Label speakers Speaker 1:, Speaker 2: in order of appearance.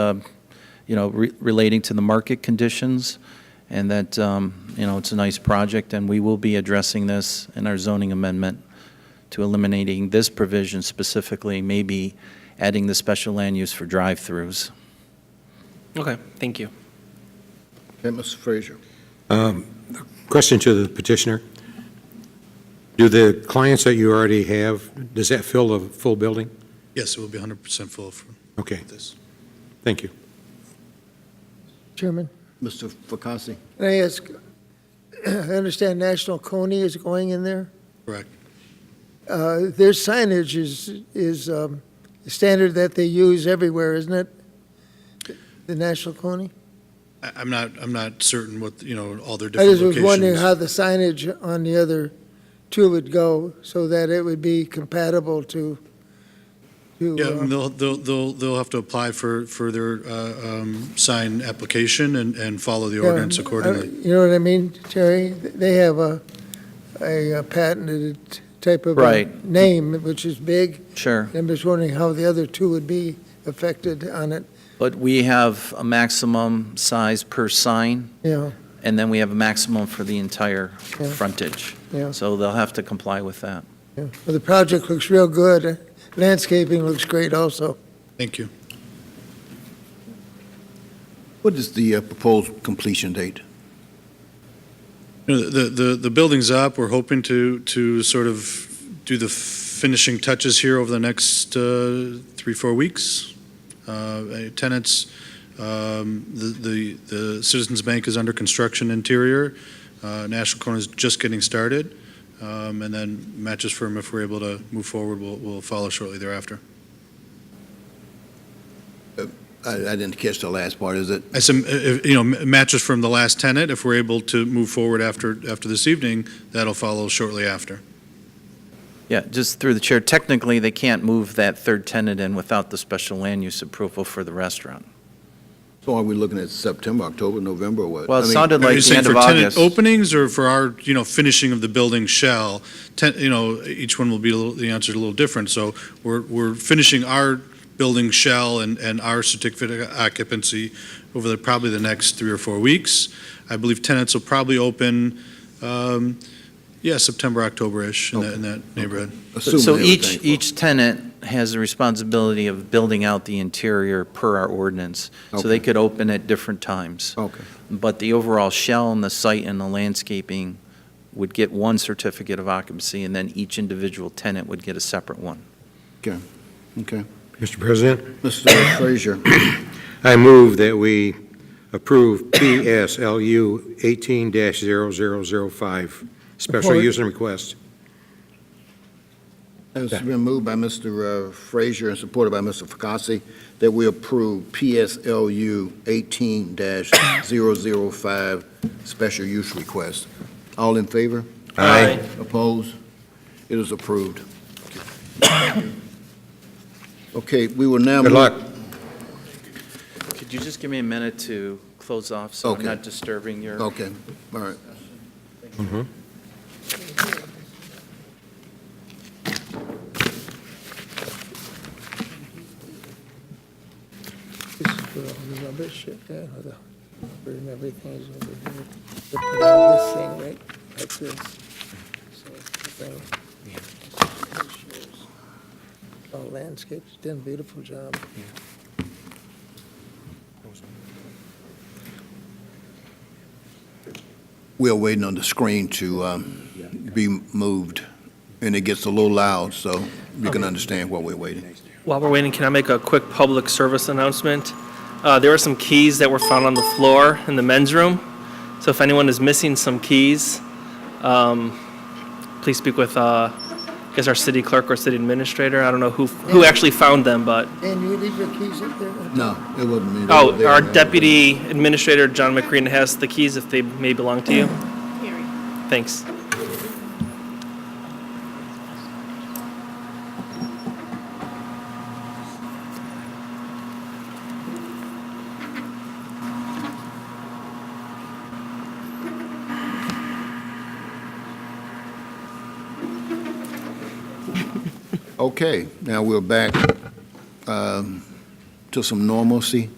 Speaker 1: um, you know, re- relating to the market conditions, and that, um, you know, it's a nice project, and we will be addressing this in our zoning amendment to eliminating this provision specifically, maybe adding the special land use for drive-throughs.
Speaker 2: Okay, thank you.
Speaker 3: Okay, Mr. Frazier.
Speaker 4: Question to the petitioner. Do the clients that you already have, does that fill the full building?
Speaker 5: Yes, it will be 100% full for
Speaker 4: Okay,
Speaker 5: this.
Speaker 4: thank you.
Speaker 6: Chairman,
Speaker 3: Mr. Fakasi.
Speaker 6: can I ask, I understand National Coney is going in there.
Speaker 5: Correct.
Speaker 6: Uh, Their signage is, is um, the standard that they use everywhere, isn't it? The National Coney?
Speaker 5: I- I'm not, I'm not certain what, you know, all their
Speaker 6: I
Speaker 5: different
Speaker 6: just was wondering
Speaker 5: locations.
Speaker 6: how the signage on the other two would go so that it would be compatible to, to,
Speaker 5: Yeah,
Speaker 6: uh,
Speaker 5: and they'll, they'll, they'll they'll have to apply for, for their uh, um, sign application and, and follow the
Speaker 6: Yeah,
Speaker 5: ordinance
Speaker 6: uh,
Speaker 5: accordingly.
Speaker 6: You know what I mean, Terry? They have a, a patented type of. uh,
Speaker 1: Right.
Speaker 6: Name, which is big.
Speaker 1: Sure.
Speaker 6: I'm just wondering how the other two would be affected on it,
Speaker 1: But we have a maximum size per sign,
Speaker 6: you know,
Speaker 1: and then we have a maximum for the entire
Speaker 6: Yeah.
Speaker 1: frontage.
Speaker 6: Yeah.
Speaker 1: So they'll have to comply with that.
Speaker 6: yeah. Well, the project looks real good. Landscaping looks great also.
Speaker 5: Thank you.
Speaker 3: What is the uh, proposed completion date?
Speaker 5: You know, The, the, the building's up. We're hoping to, to sort of do the finishing touches here over the next uh, three, four weeks. Uh, Tenants, um, the, the, the Citizens Bank is under construction interior. Uh, National Corner is just getting started. Um, And then Mattress Firm, if we're able to move forward, will, will follow shortly thereafter.
Speaker 3: I, I didn't catch the last part. Is it,
Speaker 5: I some, you know, Mattress Firm, the last tenant, if we're able to move forward after, after this evening, that'll follow shortly after.
Speaker 1: Yeah, just through the chair, technically, they can't move that third tenant in without the special land use approval for the restaurant.
Speaker 3: so are we looking at September, October, November, or what?
Speaker 1: Well, it
Speaker 3: I mean,
Speaker 1: sounded
Speaker 5: Are
Speaker 1: like
Speaker 5: you
Speaker 1: the
Speaker 5: saying
Speaker 1: end
Speaker 5: for
Speaker 1: of
Speaker 5: tenant
Speaker 1: August.
Speaker 5: openings or for our, you know, finishing of the building shell? Ten, you know, each one will be, a little- the answer's a little different. So we're, we're finishing our building shell and, and our certificate of occupancy over the, probably the next three or four weeks. I believe tenants will probably open, um, yeah, September, October-ish in that, in that neighborhood.
Speaker 3: assuming
Speaker 1: So each,
Speaker 3: everything-
Speaker 1: each tenant has the responsibility of building out the interior per our ordinance. So they
Speaker 3: Okay.
Speaker 1: could open at different times.
Speaker 3: Okay,
Speaker 1: But the overall shell and the site and the landscaping would get one certificate of occupancy, and then each individual tenant would get a separate one.
Speaker 3: okay.
Speaker 4: Mr. President?
Speaker 3: Mr. Frazier,
Speaker 4: I move that we approve PSLU 18-0005, special
Speaker 6: Support.
Speaker 4: use and request.
Speaker 3: it's been moved by Mr. uh, Frazier and supported by Mr. Fakasi that we approve PSLU 18-005 special use request. All in favor?
Speaker 4: Aye.
Speaker 3: Opposed? It is approved. Okay, we will now.
Speaker 4: Good
Speaker 3: move-
Speaker 4: luck.
Speaker 1: Could you just give me a minute to close off, so I'm
Speaker 3: Okay.
Speaker 1: not disturbing your?
Speaker 3: Okay, all right.
Speaker 6: This is where all the rubbish and the rubber and everything is over here. They put all This thing right, like this. So, so- All landscapes, done a beautiful job.
Speaker 3: We are waiting on the screen to um, be moved, and it gets a little loud, so you can understand why we're waiting.
Speaker 2: While we're waiting, can I make a quick public service announcement? Uh, There were some keys that were found on the floor in the men's room, so if anyone is missing some keys, um, please speak with, uh, I guess, our city clerk or city administrator. I don't know who, who actually found them, but,
Speaker 6: And you leave your keys up there?
Speaker 3: No, it wasn't me.
Speaker 2: oh, our deputy administrator, John McCrean, has the keys if they may belong to you. Thanks.
Speaker 3: Okay, now we're back um, to some normalcy.